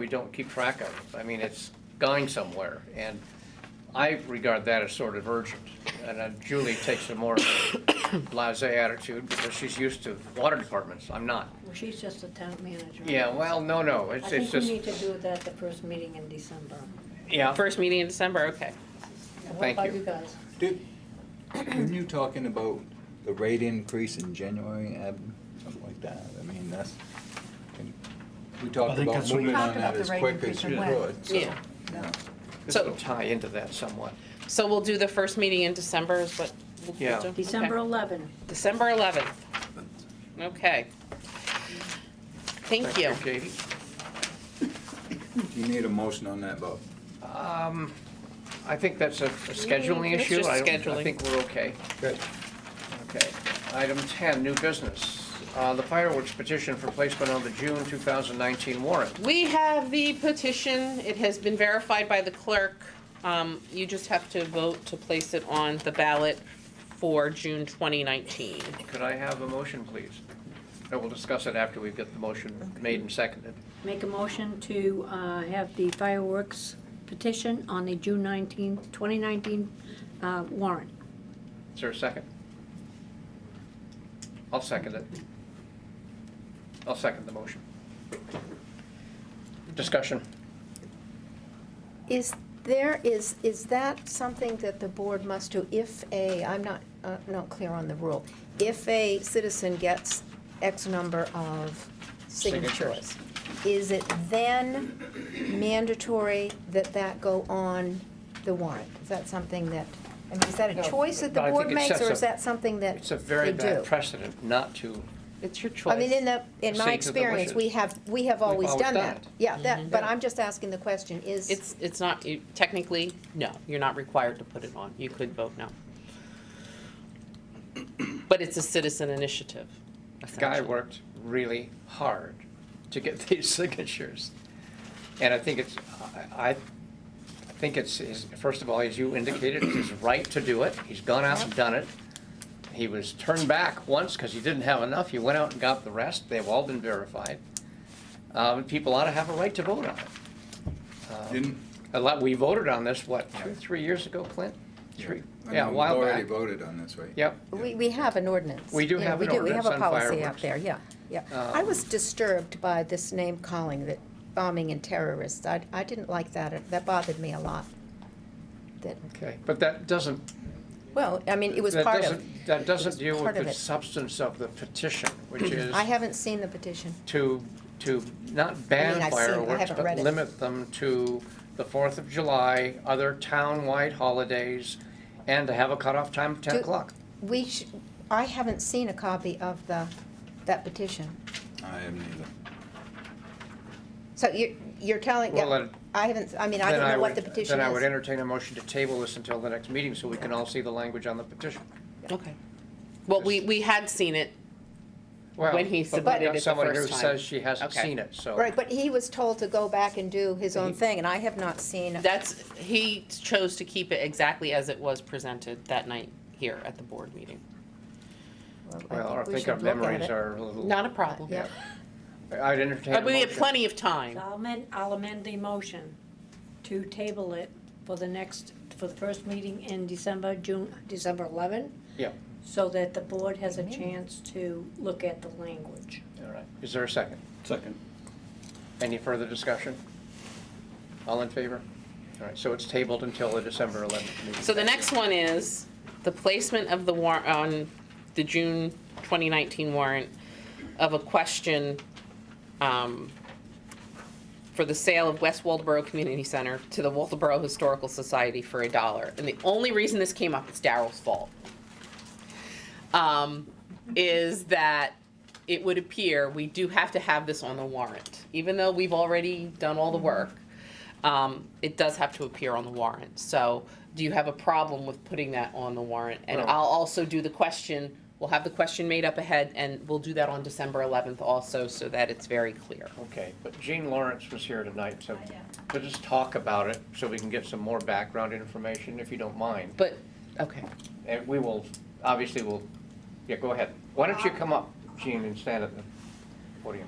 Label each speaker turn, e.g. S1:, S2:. S1: we don't keep track of. I mean, it's going somewhere, and I regard that as sort of urgent. And uh, Julie takes a more blasé attitude because she's used to water departments. I'm not.
S2: Well, she's just the town manager.
S1: Yeah, well, no, no,
S2: I
S1: it's, it's
S2: think we
S1: just,
S2: need to do that the first meeting in December.
S1: yeah,
S3: First meeting in December, okay.
S2: And
S1: Thank
S2: What
S1: you.
S2: about you guys?
S4: Did, weren't you talking about the rate increase in January, Ab, something like that? I mean, that's, we
S5: I
S4: talked
S5: think
S4: about
S5: that's what- We
S4: moving on
S6: talked
S4: that
S6: about the
S4: as
S6: rate
S4: quick
S6: increase
S4: as
S6: and
S4: you
S6: when.
S4: could, so.
S3: Yeah.
S4: yeah.
S1: this
S3: So-
S1: will tie into that somewhat.
S3: So we'll do the first meeting in December is what we'll do?
S1: Yeah.
S3: Okay.
S2: December 11.
S3: December 11th. Okay. Thank you.
S1: Katie.
S4: Do you need a motion on that, Bob?
S1: I think that's a a scheduling
S3: It's
S1: issue.
S3: just
S1: I don't-
S3: scheduling.
S1: I think we're okay.
S4: Good.
S1: Okay. Item 10, new business. Uh, The fireworks petition for placement on the June 2019 warrant.
S3: We have the petition. It has been verified by the clerk. Um, You just have to vote to place it on the ballot for June 2019.
S1: Could I have a motion, please? And we'll discuss it after we get the motion made and seconded.
S2: Make a motion to uh, have the fireworks petition on the June 19, 2019 uh, warrant.
S1: Is there a second? I'll second it. I'll second the motion. Discussion.
S6: Is there, is, is that something that the board must do if a, I'm not, uh, not clear on the rule, if a citizen gets X number of signatures, is it then mandatory that that go on the warrant? Is that something that, I mean, is that
S1: No,
S6: a choice that the
S1: but I
S6: board
S1: think it
S6: makes,
S1: sets
S6: or
S1: a-
S6: is that something that
S1: It's a very
S6: they do?
S1: bad precedent not to,
S3: It's your choice.
S6: I mean, in the, in
S1: Proceed to
S6: my
S1: the wishes.
S6: experience, we have, we have always
S1: always
S6: done
S1: done
S6: that.
S1: it.
S6: Yeah, that, but
S1: Yeah.
S6: I'm just asking the question, is.
S3: It's, it's not, you- technically, no, you're not required to put it on. You could vote no. But it's a citizen initiative.
S1: Guy
S3: essentially.
S1: worked really hard to get these signatures. And I think it's, I, I think it's, his- first of all, as you indicated, it's his right to do it. He's gone out and done it. He was turned back once because he didn't have enough. He went out and got the rest. They've all been verified. Um, People ought to have a right to vote on it.
S4: Didn't?
S1: A lot, we voted on this, what, two, three years ago, Clint? Three,
S4: I
S1: yeah, a
S4: mean,
S1: while
S4: We've already
S1: back.
S4: voted on this, right?
S1: Yep.
S6: We, we have an ordinance.
S1: We do
S6: Yeah,
S1: have an
S6: We do, we have
S1: ordinance
S6: a
S1: on
S6: policy
S1: fireworks. Um,
S6: out there, yeah, yeah. I was disturbed by this name calling that bombing and terrorists. I, I didn't like that, that bothered me a lot. That,
S1: Okay, but that doesn't,
S6: well, I mean, it was
S1: that
S6: part of,
S1: doesn't, that doesn't
S6: was
S1: deal with
S6: part of
S1: the
S6: it. Mm-hmm.
S1: substance of the petition, which is
S6: I haven't seen the petition.
S1: to, to not
S6: I mean,
S1: ban
S6: I've seen it, I
S1: fireworks,
S6: haven't
S1: but
S6: read it.
S1: limit them to the Fourth of July, other town-wide holidays, and to have a cutoff time of ten
S6: Do-
S1: o'clock.
S6: We sh I haven't seen a copy of the, that petition.
S4: I am neither.
S6: So you're, you're telling,
S1: Well, then-
S6: I haven't, I mean, I
S1: Then
S6: don't know what
S1: would-
S6: the petition is.
S1: Then I would entertain a motion to table this until the next meeting, so we can all see the language on the petition.
S3: Okay. Well, we, we had seen it.
S1: Well,
S3: When
S1: but
S3: he
S1: we
S3: submitted
S1: got
S3: it the
S1: Someone who
S3: first time.
S1: says she hasn't
S3: Okay.
S1: seen it, so.
S6: Right, but he was told to go back and do his own thing, and I have not seen.
S3: That's, he chose to keep it exactly as it was presented that night here at the board meeting.
S1: Well, I
S6: we
S1: think our
S6: should look at
S1: memories
S6: it.
S1: are a little.
S3: Not a problem.
S6: Yeah.
S1: I'd entertain a
S3: But we had
S1: motion.
S3: plenty of time.
S2: I'll amend, I'll amend the motion to table it for the next, for the first meeting in December, June, December 11,
S1: Yeah,
S2: so that the board has a chance to look at the language.
S1: all right. Is there a second?
S5: Second.
S1: Any further discussion? All in favor? All right, so it's tabled until the December 11th meeting.
S3: So the next one is the placement of the war, on the June 2019 warrant of a question um, for the sale of West Waldeboro Community Center to the Waldeboro Historical Society for a dollar. And the only reason this came up, it's Daryl's fault, um, is that it would appear we do have to have this on the warrant. Even though we've already done all the work, um, it does have to appear on the warrant. So do you have a problem with putting that on the warrant? And
S1: No.
S3: I'll also do the question, we'll have the question made up ahead, and we'll do that on December 11th also, so that it's very clear.
S1: Okay, but Jean Lawrence was here tonight, so to just talk about it, so we can get some more background information, if you don't mind.
S3: But, okay.
S1: And we will, obviously, we'll, yeah, go ahead. Why don't you come up, Jean, and stand at the podium?